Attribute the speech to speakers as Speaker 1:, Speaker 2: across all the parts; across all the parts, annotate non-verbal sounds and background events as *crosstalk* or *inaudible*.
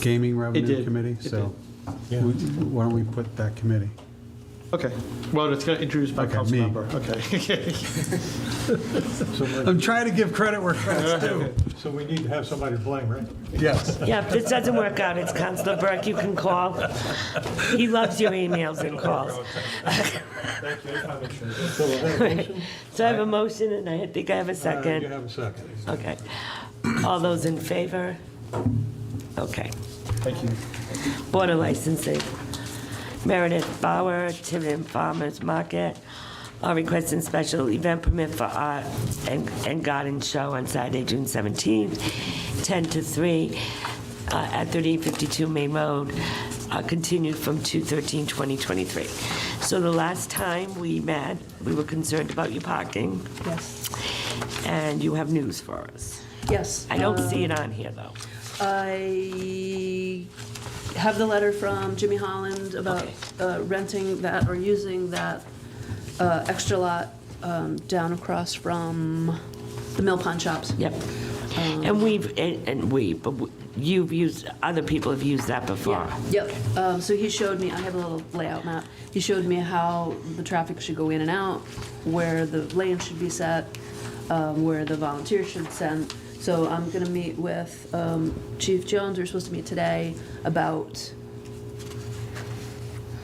Speaker 1: Gaming Revenue
Speaker 2: did.
Speaker 1: Committee,
Speaker 2: It
Speaker 1: so
Speaker 3: Yeah.
Speaker 1: we- why don't we put that committee?
Speaker 2: Okay, well, it's going to introduce my
Speaker 1: Okay,
Speaker 2: council
Speaker 1: me.
Speaker 2: member.
Speaker 1: *laughs*
Speaker 2: Okay. *laughs*
Speaker 1: I'm trying to give credit where credit's due.
Speaker 3: So we need to have somebody to blame, right?
Speaker 1: Yes.
Speaker 4: Yeah, if this doesn't work out, it's Counselor Burke, you can call. He loves your emails and calls.
Speaker 3: Thank you. I make sure. So we'll have a motion?
Speaker 4: So I have a motion, and I think I have a
Speaker 3: Uh, You
Speaker 4: second.
Speaker 3: have a second.
Speaker 4: Okay. All those in favor? Okay.
Speaker 2: Thank you.
Speaker 4: Water licensing. Meredith Bauer, Tiverton Farmers Market, are requesting special event permit for art and and garden show on Saturday, June 17th, 10 to 3, uh, at 3852 Main Road, uh, continued from 2/13/2023. So the last time we met, we were concerned about your parking,
Speaker 5: Yes,
Speaker 4: and you have news for us.
Speaker 5: yes.
Speaker 4: I don't
Speaker 5: um,
Speaker 4: see it on here, though.
Speaker 5: I have the letter from Jimmy Holland about uh, renting that or using that uh, extra lot um, down across from the Mill Pond Shops.
Speaker 4: Yep. And we've, and and we, but w- you've used, other people have used that before.
Speaker 5: Yep, um, so he showed me, I have a little layout map, he showed me how the traffic should go in and out, where the lane should be set, um, where the volunteers should send. So I'm gonna meet with, um, Chief Jones, we're supposed to meet today about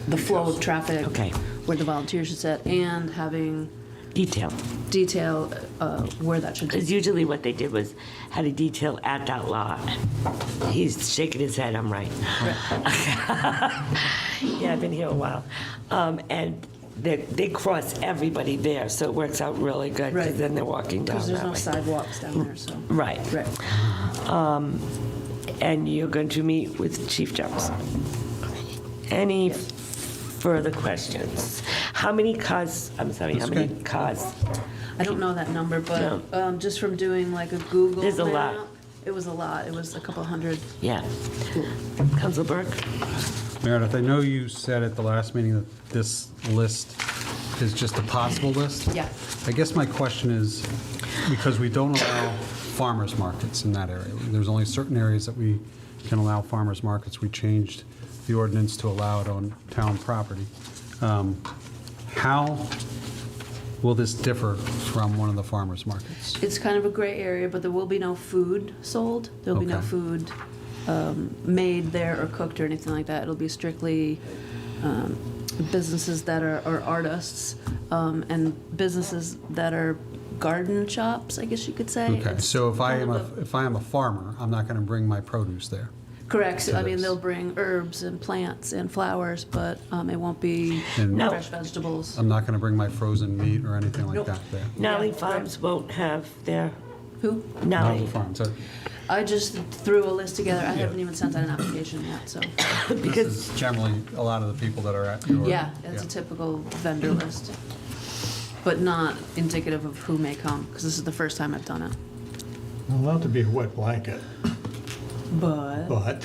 Speaker 5: the flow of traffic.
Speaker 4: Okay.
Speaker 5: Where the volunteers should sit, and having
Speaker 4: Detail.
Speaker 5: detail, uh, where that should
Speaker 4: Because
Speaker 5: be.
Speaker 4: usually what they did was had a detail at that lot. He's shaking his head, I'm right. *laughs* Yeah, I've been here a while. Um, And they, they cross everybody there, so it works out really good.
Speaker 5: Right.
Speaker 4: Because then they're walking down
Speaker 5: Because there's no
Speaker 4: that way.
Speaker 5: sidewalks down there, so.
Speaker 4: Right.
Speaker 5: Right.
Speaker 4: And you're going to meet with Chief Jones. Any further questions? How many cars, I'm sorry, how many cars?
Speaker 5: I don't know that number,
Speaker 4: No.
Speaker 5: but um, just from doing like a Google.
Speaker 4: There's a lot.
Speaker 5: map, It was a lot. It was a couple hundred.
Speaker 4: Yeah. Council Burke?
Speaker 1: Meredith, I know you said at the last meeting that this list is just a possible list.
Speaker 5: Yeah.
Speaker 1: I guess my question is, because we don't allow farmers markets in that area, there's only certain areas that we can allow farmers markets. We changed the ordinance to allow it on town property. Um, How will this differ from one of the farmers markets?
Speaker 5: It's kind of a gray area, but there will be no food sold. There'll be no
Speaker 1: Okay.
Speaker 5: food um, made there or cooked or anything like that. It'll be strictly um, businesses that are, are artists um, and businesses that are garden shops, I guess you could say.
Speaker 1: Okay,
Speaker 5: It's
Speaker 1: so if I
Speaker 5: kind
Speaker 1: am
Speaker 5: of
Speaker 1: a, if I am a farmer, I'm not going to bring my produce there.
Speaker 5: Correct. So, I mean,
Speaker 1: this.
Speaker 5: they'll bring herbs and plants and flowers, but um, it won't be
Speaker 1: And- um,
Speaker 4: No.
Speaker 5: fresh vegetables.
Speaker 1: I'm not going to bring my frozen meat or anything like
Speaker 5: Nope.
Speaker 1: that there.
Speaker 4: Nolly Farms won't have their,
Speaker 5: Who?
Speaker 1: Not the
Speaker 4: Nolly,
Speaker 1: farm, so
Speaker 5: I just threw a list together. I haven't even sent out an application yet, so,
Speaker 1: this is generally a lot of the people that are at your.
Speaker 5: yeah, that's a typical vendor list. But not indicative of who may come, because this is the first time I've done it.
Speaker 3: Not to be a wet blanket,
Speaker 5: But.
Speaker 3: but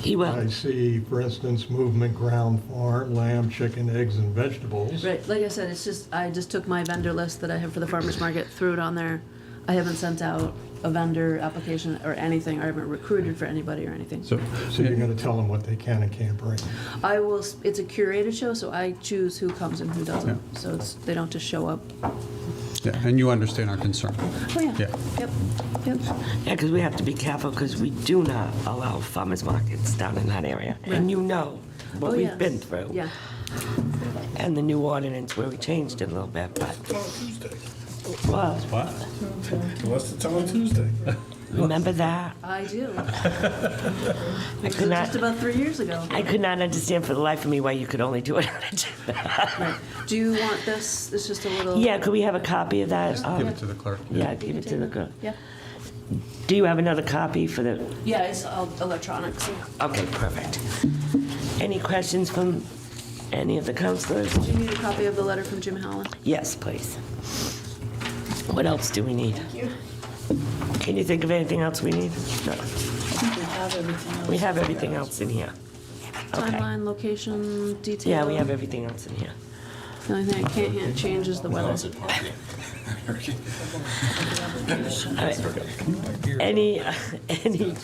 Speaker 4: he
Speaker 3: I
Speaker 4: will.
Speaker 3: see, for instance, movement ground farm, lamb, chicken, eggs, and vegetables.
Speaker 5: Right, like I said, it's just, I just took my vendor list that I have for the farmer's market, threw it on there. I haven't sent out a vendor application or anything, or haven't recruited for anybody or anything.
Speaker 1: So,
Speaker 3: So you're going to tell them what they can and can't bring.
Speaker 5: I will, s- it's a curated show, so I choose who comes and who doesn't.
Speaker 1: Yeah.
Speaker 5: So it's, they don't just show up.
Speaker 1: yeah, and you understand our concern.
Speaker 5: Oh, yeah.
Speaker 1: Yeah.
Speaker 5: Yep, yep.
Speaker 4: Yeah, because we have to be careful because we do not allow farmers markets down in that area. And you know what
Speaker 5: Oh,
Speaker 4: we've
Speaker 5: yes.
Speaker 4: been through.
Speaker 5: Yeah.
Speaker 4: And the new ordinance where we changed it a little bit, but. Well,
Speaker 6: What's the time on Tuesday?
Speaker 4: remember that?
Speaker 5: I
Speaker 4: *laughs*
Speaker 5: do.
Speaker 4: I
Speaker 5: It
Speaker 4: could
Speaker 5: was
Speaker 4: not-
Speaker 5: just about three years ago.
Speaker 4: I could not understand for the life of me why you could only do it on a Tuesday.
Speaker 5: Do you want this? It's just a little.
Speaker 4: Yeah, could we have a copy of that?
Speaker 1: Give
Speaker 4: Um,
Speaker 1: it to the clerk.
Speaker 4: Yeah, give it to the girl.
Speaker 5: Yeah.
Speaker 4: Do you have another copy for the,
Speaker 5: Yeah, it's all electronics.
Speaker 4: okay, perfect. Any questions from any of the counselors?
Speaker 5: Do you need a copy of the letter from Jim Howland?
Speaker 4: Yes, please. What else do we need? Can you think of anything else we need? No, we have everything else in here. Okay.
Speaker 5: Timeline, location, detail.
Speaker 4: Yeah, we have everything else in here.
Speaker 5: The only thing I can't hand- change is the weather.
Speaker 4: *laughs* All right. Any, any